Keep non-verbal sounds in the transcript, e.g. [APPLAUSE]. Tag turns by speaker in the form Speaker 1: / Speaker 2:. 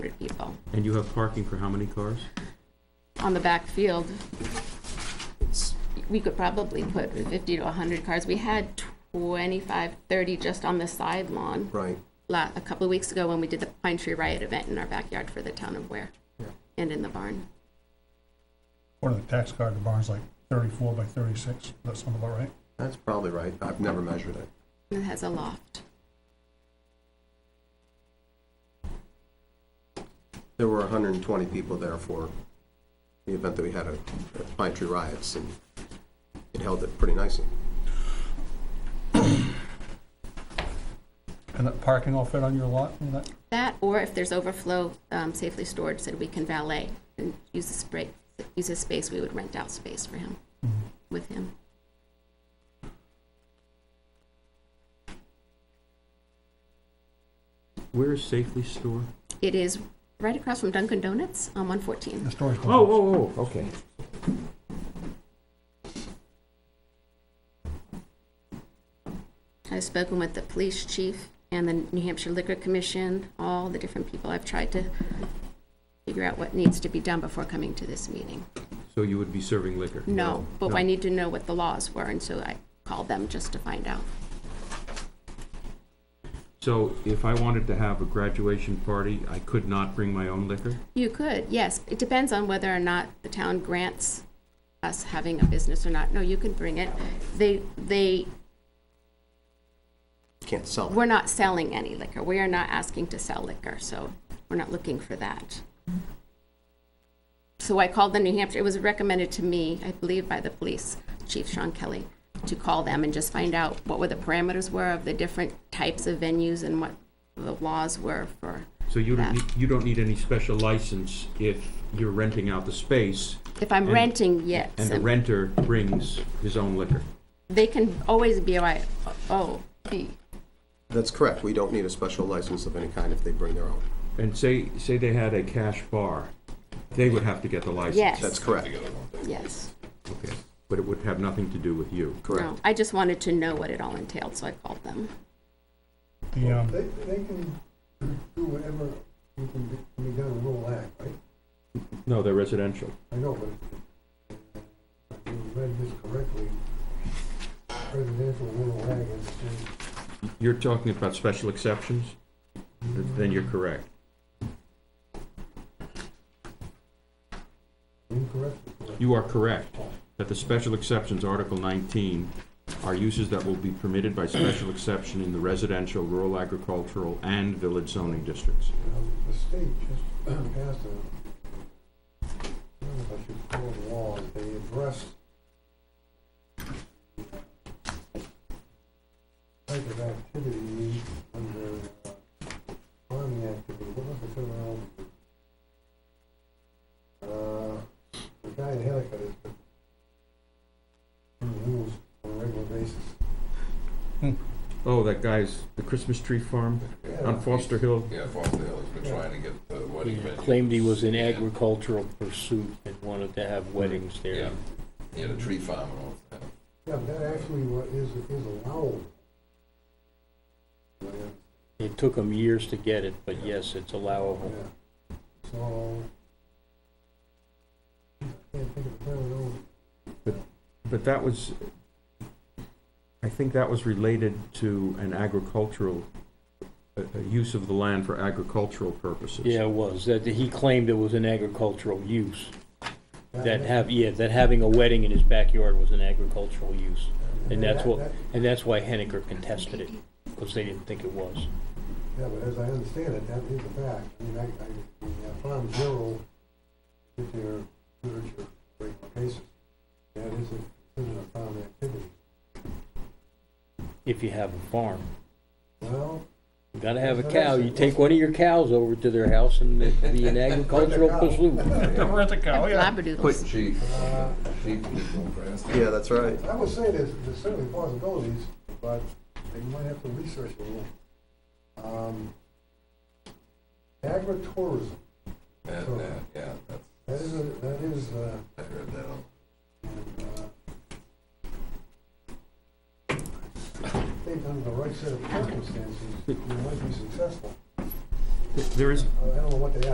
Speaker 1: for people
Speaker 2: And you have parking for how many cars?
Speaker 1: on the back field. We could probably put 50 to 100 cars. We had 25, 30 just on the side lawn
Speaker 3: Right.
Speaker 1: la- a couple of weeks ago when we did the Pine Tree Riot event in our backyard for the town of Ware and in the barn.
Speaker 4: According to the tax card, the barn's like thirty-four by thirty-six, that sound about right?
Speaker 3: That's probably right. I've never measured it.
Speaker 1: It has a loft.
Speaker 3: There were 120 people there for the event that we had at at Pine Tree Riots, and it held it pretty nicely.
Speaker 4: And that parking all fit on your lot and that?
Speaker 1: That, or if there's overflow um, safely stored, said we can valet and use the spray, use his space, we would rent out space for him, with him.
Speaker 2: Where is Safely Store?
Speaker 1: It is right across from Dunkin' Donuts on 114.
Speaker 4: The storage.
Speaker 2: Oh, oh, oh, okay.
Speaker 1: I've spoken with the police chief and the New Hampshire Liquor Commission, all the different people. I've tried to figure out what needs to be done before coming to this meeting.
Speaker 2: So you would be serving liquor?
Speaker 1: No, but
Speaker 2: No.
Speaker 1: I need to know what the laws were, and so I called them just to find out.
Speaker 2: So if I wanted to have a graduation party, I could not bring my own liquor?
Speaker 1: You could, yes. It depends on whether or not the town grants us having a business or not. No, you can bring it. They, they,
Speaker 3: Can't sell it.
Speaker 1: we're not selling any liquor. We are not asking to sell liquor, so we're not looking for that. So I called the New Hampshire, it was recommended to me, I believe by the police chief, Sean Kelly, to call them and just find out what were the parameters were of the different types of venues and what the laws were for.
Speaker 2: So you
Speaker 1: that.
Speaker 2: don't need, you don't need any special license if you're renting out the space
Speaker 1: If I'm
Speaker 2: And-
Speaker 1: renting, yes.
Speaker 2: and the
Speaker 1: I'm-
Speaker 2: renter brings his own liquor?
Speaker 1: they can always be like, oh, gee,
Speaker 3: That's correct. We don't need a special license of any kind if they bring their own.
Speaker 2: And say, say they had a cash bar, they would have to get the license?
Speaker 1: Yes.
Speaker 3: That's correct.
Speaker 1: yes.
Speaker 2: Okay, but it would have nothing to do with you?
Speaker 1: No, I just wanted to know what it all entailed, so I called them.
Speaker 4: The, um,
Speaker 5: They, they can do whatever we can be, can be done in Little Ag, right?
Speaker 2: No, they're residential.
Speaker 5: I know, but if you read this correctly, residential Little Ag is, is
Speaker 2: You're talking about special exceptions? Then you're correct.
Speaker 5: incorrect.
Speaker 2: You are correct that the special exceptions, Article 19, are uses that will be permitted by special exception in the residential, rural agricultural, and village zoning districts.
Speaker 5: Um, The state just [CLEARS THROAT] passed a, I don't know if I should call it a law, they addressed type of activity under uh, farming activity, what was the terminology? Uh, the guy in Helica is, the rules on a regular basis.
Speaker 2: Oh, that guy's, the Christmas tree farm
Speaker 5: Yeah,
Speaker 2: on Foster Hill?
Speaker 6: Yeah, Foster Hill has been trying to get the wedding
Speaker 7: Yeah,
Speaker 6: venue.
Speaker 7: Claimed he was in agricultural pursuit and wanted to have weddings
Speaker 6: Yeah,
Speaker 7: there.
Speaker 6: he had a tree farm and all that.
Speaker 5: yeah, but that actually wa- is, is allowed. Yeah.
Speaker 7: It took him years to get it, but yes, it's allowable.
Speaker 5: Yeah. So. I Can't think of the terminology.
Speaker 2: But that was, I think that was related to an agricultural, a a use of the land for agricultural purposes.
Speaker 7: Yeah, it was, that, he claimed it was an agricultural use, that
Speaker 5: That-
Speaker 7: have, yeah, that having a wedding in his backyard was an agricultural use. And that's what,
Speaker 5: that-
Speaker 7: and that's why Henniker contested it, because they didn't think it was.
Speaker 5: Yeah, but as I understand it, that is a fact. I mean, I, I, the Farm Bureau did their literature break cases. That is a, considered a farm activity.
Speaker 7: If you have a farm,
Speaker 5: Well,
Speaker 7: you gotta have a cow, you take one of your cows over to their house and it'd
Speaker 5: [LAUGHS]
Speaker 7: be an agricultural pursuit.
Speaker 4: Where's the cow, Oh, yeah?
Speaker 1: Labradoodles.
Speaker 6: Sheep, sheep was going grass.
Speaker 3: Yeah, that's right.
Speaker 5: I would say there's, there's certainly possibilities, but you might have to research a little. Um, Agritourism,
Speaker 6: And, uh, yeah, that's,
Speaker 5: that is, a- that is, uh,
Speaker 6: I heard that on.
Speaker 5: uh, I think under the right set of circumstances, you might be successful.
Speaker 2: There is
Speaker 5: I don't know what they are.